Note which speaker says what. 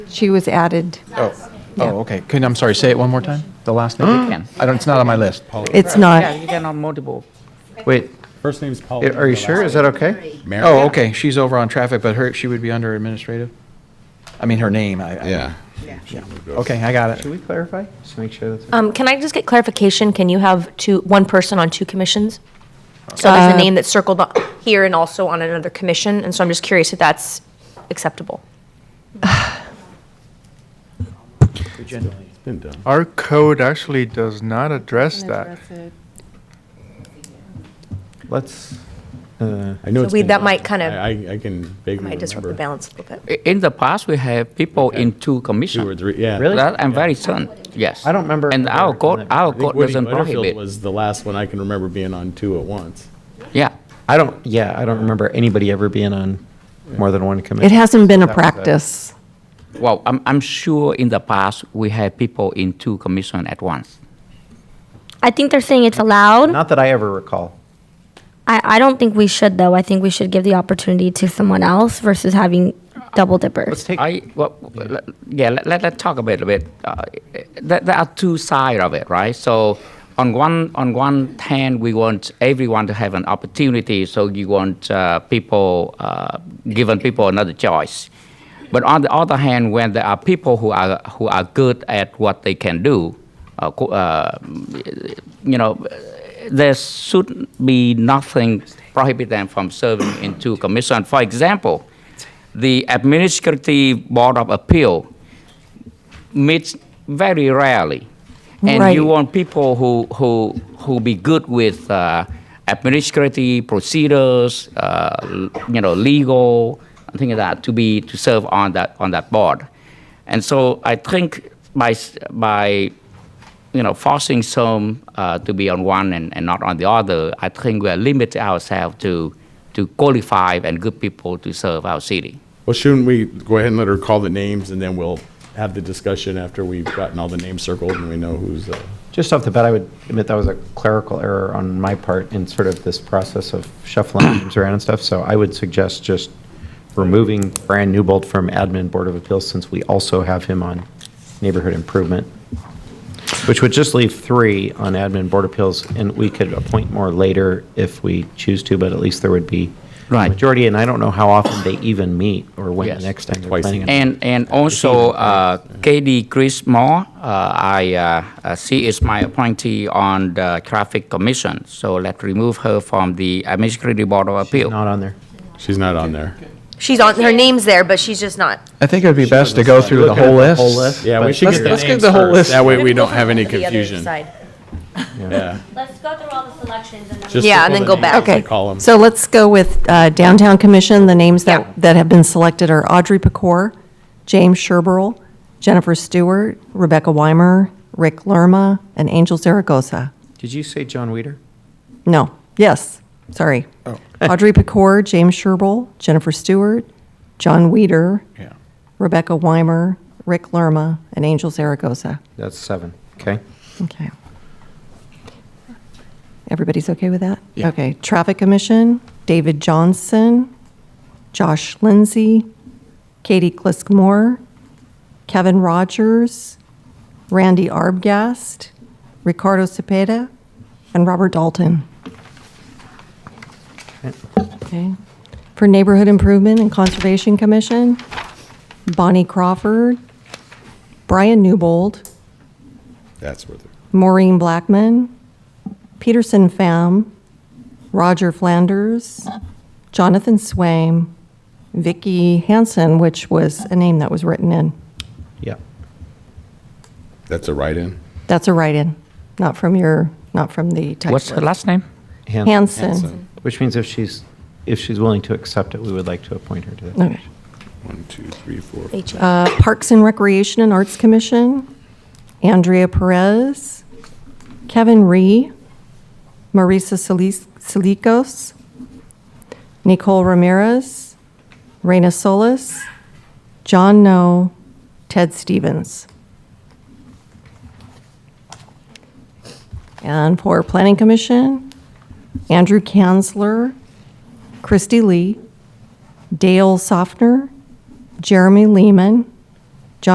Speaker 1: She was added.
Speaker 2: Oh, oh, okay. Can, I'm sorry, say it one more time? The last name?
Speaker 3: Can.
Speaker 2: I don't, it's not on my list.
Speaker 1: It's
Speaker 3: Yeah,
Speaker 1: not.
Speaker 3: you can on multiple.
Speaker 2: Wait,
Speaker 4: First name's Paul.
Speaker 2: are you sure? Is that okay?
Speaker 5: Mary?
Speaker 2: Oh, okay, she's over on traffic, but her, she would be under administrative? I mean, her name, I- I.
Speaker 5: Yeah.
Speaker 2: Okay, I got it. Should we clarify? Just make sure that's.
Speaker 6: Um, Can I just get clarification? Can you have two, one person on two commissions? So there's a name that's circled on- here and also on another commission, and so I'm just curious if that's acceptable.
Speaker 5: Been done.
Speaker 7: Our code actually does not address that.
Speaker 2: Let's,
Speaker 8: uh,
Speaker 5: I know
Speaker 6: So
Speaker 5: it's
Speaker 6: we-
Speaker 5: been
Speaker 6: that
Speaker 5: done.
Speaker 6: might kind of-
Speaker 5: I, I- I can vaguely
Speaker 6: Might disrupt the
Speaker 5: remember.
Speaker 6: balance a little bit.
Speaker 3: I- In the past, we have people in two
Speaker 5: Two or
Speaker 3: commissions.
Speaker 5: three, yeah.
Speaker 2: Really?
Speaker 3: That I'm very certain, yes.
Speaker 2: I don't remember
Speaker 3: And
Speaker 2: ever
Speaker 3: our
Speaker 2: doing
Speaker 3: code,
Speaker 2: that.
Speaker 3: our
Speaker 5: I think
Speaker 3: code
Speaker 5: Woody
Speaker 3: doesn't
Speaker 5: Butterfield
Speaker 3: prohibit.
Speaker 5: was the last one I can remember being on two at once.
Speaker 3: Yeah,
Speaker 8: I don't, yeah, I don't remember anybody ever being on more than one committee.
Speaker 1: It hasn't been a practice.
Speaker 3: well, I'm, I'm sure in the past, we had people in two commission at once.
Speaker 9: I think they're saying it's allowed.
Speaker 8: Not that I ever recall.
Speaker 9: I, I don't think we should though. I think we should give the opportunity to someone else versus having double dippers.
Speaker 8: take-
Speaker 3: I, well, let- yeah, let, let, let's talk a bit, a bit. Uh, there, there are two sides of it, right? So on one, on one hand, we want everyone to have an opportunity, so you want uh, people, uh, given people another choice. But on the other hand, when there are people who are, who are good at what they can do, uh, co- uh, you know, there should be nothing prohibit them from serving in two commission. For example, the Administrative Board of Appeal meets very rarely. And
Speaker 1: Right.
Speaker 3: you want people who, who, who be good with uh, administrative procedures, uh, l- you know, legal, things like that, to be, to serve on that, on that board. And so I think by, s- by you know, forcing some uh, to be on one and, and not on the other, I think we are limiting ourselves to, to qualify and good people to serve our city.
Speaker 5: Well, shouldn't we go ahead and let her call the names and then we'll have the discussion after we've gotten all the names circled and we know who's, uh,
Speaker 8: Just off the bat, I would admit that was a clerical error on my part in sort of this process of shuffling names around and stuff. So I would suggest just removing Brian Newbold from Admin Board of Appeals since we also have him on Neighborhood Improvement, which would just leave three on Admin Board of Appeals, and we could appoint more later if we choose to, but at least there would be a
Speaker 3: Right.
Speaker 8: majority, and I don't know how often they even meet or when the
Speaker 3: Yes.
Speaker 8: next time they're
Speaker 5: Twice a
Speaker 8: planning on.
Speaker 3: And, and also uh, KD Chris Moore, uh, I, uh, uh, she is my appointee on the Traffic Commission, so let's remove her from the Administrative Board of Appeal.
Speaker 8: Not on there.
Speaker 5: she's not on there.
Speaker 6: She's on, her name's there, but she's just not.
Speaker 2: I think it would be best to go through the whole list.
Speaker 5: Yeah, we
Speaker 8: but-
Speaker 5: should
Speaker 2: Let's-
Speaker 5: get the
Speaker 2: let's get
Speaker 5: names
Speaker 2: the whole
Speaker 5: first.
Speaker 2: list.
Speaker 5: That way we
Speaker 6: We're gonna
Speaker 5: don't
Speaker 6: go
Speaker 5: have any
Speaker 6: to the other
Speaker 5: confusion.
Speaker 6: side.
Speaker 5: Yeah.
Speaker 9: Let's go through all the selections and
Speaker 5: Just
Speaker 6: Yeah,
Speaker 5: circle
Speaker 6: and then
Speaker 5: the
Speaker 6: go
Speaker 5: names
Speaker 6: back.
Speaker 5: as we
Speaker 1: Okay,
Speaker 5: Call them.
Speaker 1: so let's go with uh, Downtown Commission. The names
Speaker 6: Yeah.
Speaker 1: that, that have been selected are Audrey Pecor, James Sherburl, Jennifer Stewart, Rebecca Weimer, Rick Lerma, and Angel Zaragoza.
Speaker 8: Did you say John Weider?
Speaker 1: No, yes, sorry.
Speaker 2: Oh.
Speaker 1: Audrey Pecor, James Sherburl, Jennifer Stewart, John Weider,
Speaker 2: Yeah.
Speaker 1: Rebecca Weimer, Rick Lerma, and Angel Zaragoza.
Speaker 8: That's seven, okay.
Speaker 1: Okay. Everybody's okay with that?
Speaker 2: Yeah.
Speaker 1: Okay. Traffic Commission, David Johnson, Josh Lindsay, Katie Kliskmore, Kevin Rogers, Randy Arbgast, Ricardo Cepeda, and Robert Dalton. Okay. For Neighborhood Improvement and Conservation Commission, Bonnie Crawford, Brian Newbold,
Speaker 5: That's where the
Speaker 1: Maureen Blackman, Peterson Pham, Roger Flanders, Jonathan Swaim, Vicky Hansen, which was a name that was written in.
Speaker 8: Yeah.
Speaker 5: That's a write-in.
Speaker 1: That's a write-in, not from your, not from the type
Speaker 3: What's her
Speaker 1: list.
Speaker 3: last name?
Speaker 8: Hanson.
Speaker 1: Hansen.
Speaker 8: Which means if she's, if she's willing to accept it, we would like to appoint her to that.
Speaker 1: Okay.
Speaker 5: One, two, three, four.
Speaker 6: They change.
Speaker 1: Uh, Parks and Recreation and Arts Commission, Andrea Perez, Kevin Ree, Marisa Silis- Silikos, Nicole Ramirez, Reina Solis, John No, Ted Stevens. And for Planning Commission, Andrew Kanzler, Christy Lee, Dale Softner, Jeremy Lehman,